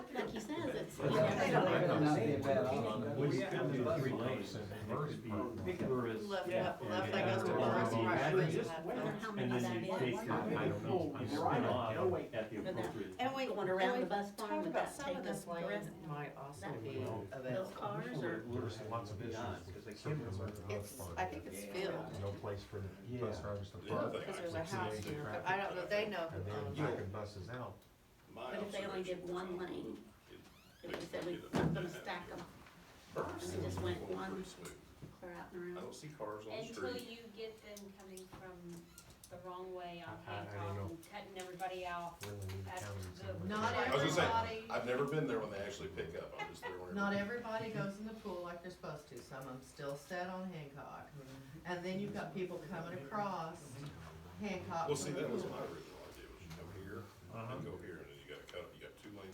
We Yeah. still do three lanes, first Pick up. tourist. Left, Yeah. left, left, that goes to the Yeah. rest of Yeah. our streets, Just left, wait. left. How And many then that you is? take your, I don't know, you spin off at the And that- appropriate. And we, Going around the bus barn, talk would about that some take of us this way grant in? might also That'd be be available. those cars or- There's lots of issues. Because they can't remember. It's, I think it's Yeah. filled, No place for the bus Yeah. drivers to Yeah. park. because there's Like, a so house they here, but traffic I don't know, they know And who owns then it. backing buses out. My But if they only did observation one was lane, it- if we said they we're did it not gonna that stack way. them First, and they just it went was one- pretty smooth. clear out and I around. don't see cars on the Until street. you get them coming from the wrong way on I- I- I don't Hancock know. and cutting everybody off. Really need That's the- county. Not I was gonna say, everybody, I've never been there when they actually pick up, I'm just there whenever. not everybody goes in the pool like they're supposed to, some of them still sat on Hancock. And then you've got people coming across Hancock Well, from see, the that was pool. my original idea, was you come here Uh-huh. and go here.